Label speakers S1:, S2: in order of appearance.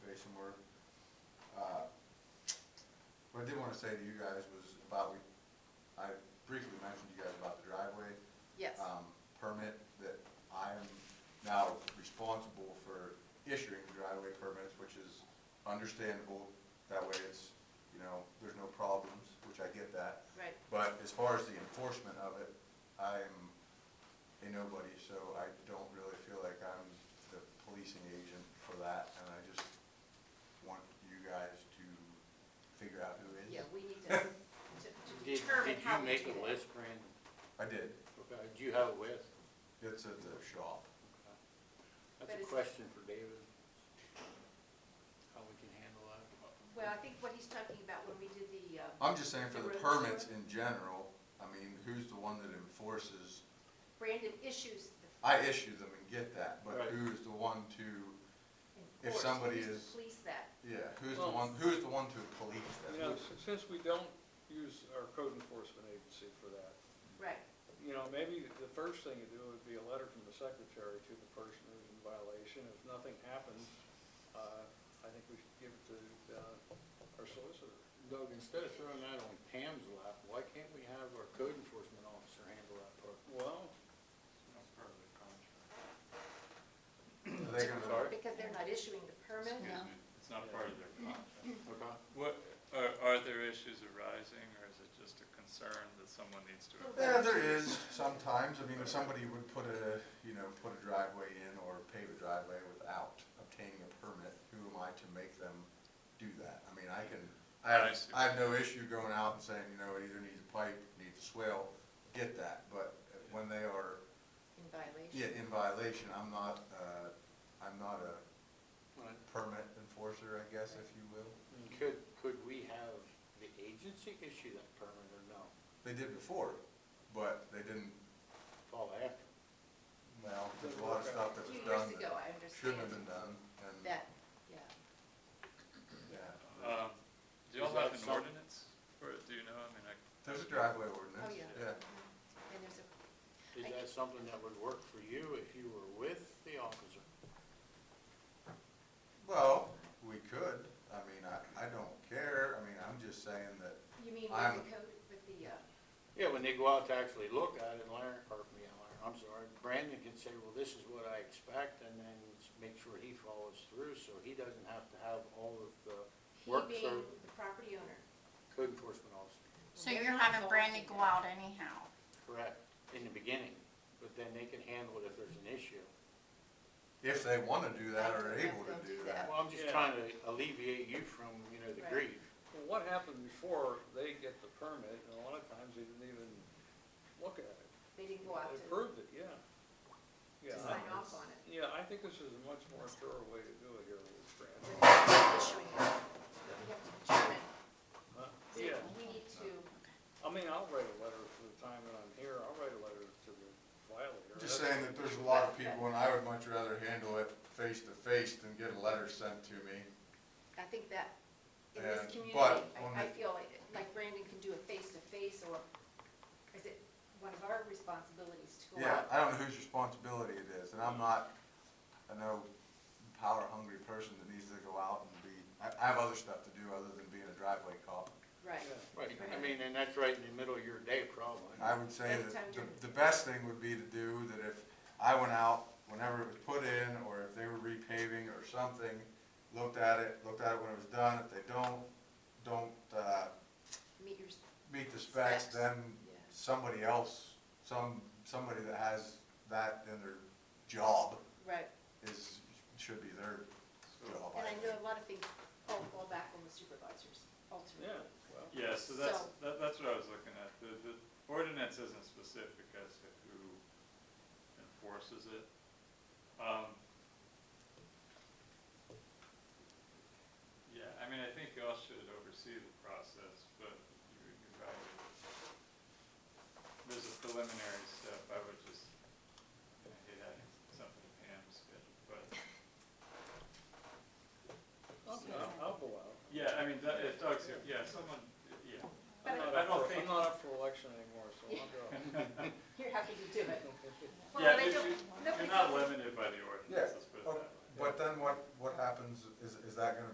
S1: Uh, What I did wanna say to you guys was about, we, I briefly mentioned to you guys about the driveway.
S2: Yes.
S1: Um, permit that I am now responsible for issuing the driveway permits, which is understandable. That way it's, you know, there's no problems, which I get that.
S2: Right.
S1: But as far as the enforcement of it, I'm a nobody, so I don't really feel like I'm the policing agent for that, and I just want you guys to figure out who is.
S2: Yeah, we need to, to to
S3: Did,
S2: determine
S3: did
S2: how
S3: you
S2: we
S3: make
S2: do
S3: a
S2: that.
S3: list, Brandon?
S1: I did.
S3: Okay, do you have a list?
S1: It's at the shop.
S2: But
S3: That's a
S2: it's-
S3: question for David. How we can handle that.
S2: Well, I think what he's talking about when we did the, uh,
S1: I'm just saying for the permits in general, I mean, who's the one that enforces?
S2: Brandon issues the
S1: I issue them and get that, but
S3: Right.
S1: who's the one to, If
S2: enforce,
S1: somebody
S2: who's to
S1: is-
S2: police that.
S1: yeah, who's the
S4: Well-
S1: one, who's the one to police that?
S4: You know, s- since we don't use our code enforcement agency for that,
S2: Right,
S4: you know, maybe the first thing to do would be a letter from the secretary to the person who's in violation. If nothing happens, uh, I think we should give it to, uh, our solicitor.
S3: Doug, instead of throwing that on Pam's lap, why can't we have our code enforcement officer handle that part?
S4: Well,
S1: Are they gonna,
S2: because they're not issuing the permit.
S5: Excuse me, it's not part of their contract.
S3: Okay.
S5: What, are, are there issues arising, or is it just a concern that someone needs to?
S1: yeah, there is sometimes, I mean, if somebody would put a, you know, put a driveway in or pave a driveway without obtaining a permit, who am I to make them do that? I mean, I can, I
S5: I
S1: have,
S5: see.
S1: I have no issue going out and saying, you know, it either needs a pipe, needs a swale, get that, but when they are
S2: In violation.
S1: Yeah, in violation, I'm not, uh, I'm not a
S3: Right.
S1: permit enforcer, I guess, if you will.
S3: Could, could we have the agency issue that permit or no?
S1: They did before, but they didn't,
S3: Fall after.
S1: well, there's a lot of stuff that
S2: A
S1: was
S2: few
S1: done
S2: years ago,
S1: that
S2: I
S1: shouldn't have been
S2: understand
S1: done, and,
S2: that, yeah.
S1: yeah.
S2: Oh,
S5: Um, do
S3: Is
S5: y'all have
S3: that
S5: an
S3: some-
S5: ordinance, or do you know, I mean, I,
S1: There's a driveway ordinance,
S2: Oh, yeah.
S1: yeah.
S2: And there's a,
S3: Is that something that would work for you if you were with the officer?
S1: Well, we could, I mean, I, I don't care, I mean, I'm just saying that,
S2: you mean with
S1: I'm-
S2: the code, with the, uh,
S3: Yeah, when they go out to actually look at it, Larry, or me, Larry, I'm sorry, Brandon can say, well, this is what I expect, and then s- make sure he follows through, so he doesn't have to have all of the
S2: he
S3: work
S2: being
S3: for
S2: the property owner.
S3: code enforcement officer.
S6: So
S2: They're
S6: you're
S2: not
S6: having
S2: going
S6: Brandy
S2: to
S6: go
S2: do
S6: out anyhow?
S3: Correct, in the beginning, but then they can handle it if there's an issue.
S1: if they wanna do that or
S2: I
S1: are
S2: think
S1: able
S2: they'll
S1: to do
S2: do
S1: that.
S2: that.
S3: Well, I'm just
S4: Yeah.
S3: trying to alleviate you from, you know, the
S2: Right.
S3: grief.
S4: well, what happened before they get the permit, and a lot of times they didn't even look at it.
S2: They didn't go out
S4: They
S2: to,
S4: proved it, yeah. Yeah,
S2: to
S4: I-
S2: sign off on it.
S4: yeah, I think this is a much more thorough way to do it here, Fran.
S2: Without issuing it. But we have to determine,
S4: Huh?
S2: so
S4: Yeah.
S2: we need to,
S4: I mean, I'll write a letter for the time that I'm here, I'll write a letter to the violator.
S1: Just saying that there's a lot of people and I would much rather handle it face to face than get a letter sent to me.
S2: I think that in this
S1: And-
S2: community,
S1: but on
S2: I, I
S1: the-
S2: feel like- like Brandon can do a face-to-face or is it one of our responsibilities to go
S1: Yeah,
S2: out?
S1: I don't know whose responsibility it is, and I'm not, I know, power hungry person that needs to go out and be, I, I have other stuff to do other than being a driveway cop.
S2: Right,
S4: Yeah.
S3: Right, I mean, and that's right in the middle of your day problem.
S1: I would say
S2: Every time
S1: that
S2: you're-
S1: the, the best thing would be to do that if I went out, whenever it was put in, or if they were repaving or something, looked at it, looked at it when it was done, if they don't, don't, uh,
S2: meet your,
S1: meet the specs,
S2: Specs.
S1: then
S2: yeah.
S1: somebody else, some, somebody that has that in their job
S2: Right,
S1: is, should be their
S5: so,
S1: job.
S2: and I
S1: think.
S2: know a lot of things all fall back on the supervisors ultimately.
S4: Yeah, well,
S5: yeah, so that's,
S2: So-
S5: that, that's what I was looking at, the, the ordinance isn't specific as to who enforces it. Um, Yeah, I mean, I think y'all should oversee the process, but you, you probably, there's a preliminary step, I would just, I hate adding something to Pam's schedule, but,
S4: I'll, I'll- I'll go out.
S5: yeah, I mean, that- if Doug's here, yeah, someone, yeah.
S4: I'm
S2: But
S4: not
S5: I
S4: up
S5: don't
S4: for-
S5: think-
S4: I'm not up for election anymore, so I'll go.
S2: You're happy to do it.
S5: Yeah,
S2: Well, they
S5: you-
S2: don't,
S5: you-
S2: nobody.
S5: You're not limited by the ordinance,
S1: Yeah,
S5: let's put it that
S1: oh,
S5: way.
S1: But then what, what happens, is, is that gonna